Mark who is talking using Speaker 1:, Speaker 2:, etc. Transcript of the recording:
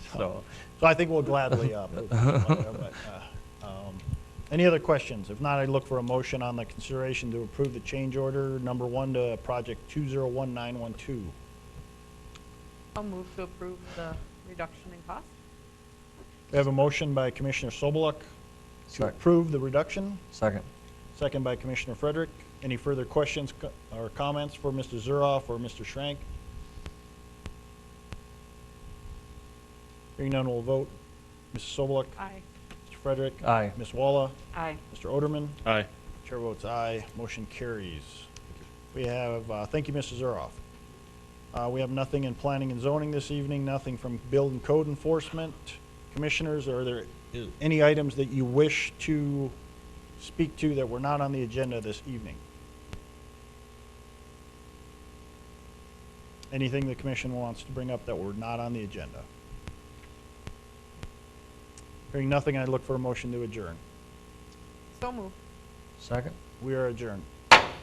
Speaker 1: So, so I think we'll gladly uh, move on from there, but, uh, um, Any other questions? If not, I look for a motion on the consideration to approve the change order number one to project 201912.
Speaker 2: I'll move to approve the reduction in cost.
Speaker 1: We have a motion by Commissioner Sobeluk to
Speaker 3: Second.
Speaker 1: approve the reduction,
Speaker 3: Second.
Speaker 1: second by Commissioner Frederick. Any further questions co- or comments for Mr. Zuroff or Mr. Schrank? Hearing none, we'll vote. Mrs. Sobeluk,
Speaker 2: Aye.
Speaker 1: Mr. Frederick,
Speaker 3: Aye.
Speaker 1: Ms. Walla,
Speaker 2: Aye.
Speaker 1: Mr. Oderman,
Speaker 4: Aye.
Speaker 1: Chair votes aye, motion carries. We have, uh, thank you, Mrs. Zuroff. Uh, We have nothing in planning and zoning this evening, nothing from build and code enforcement. Commissioners, are there any items that you wish to speak to that were not on the agenda this evening? Anything the commission wants to bring up that were not on the agenda? Hearing nothing, I look for a motion to adjourn.
Speaker 2: So moved.
Speaker 3: Second.
Speaker 1: We are adjourned.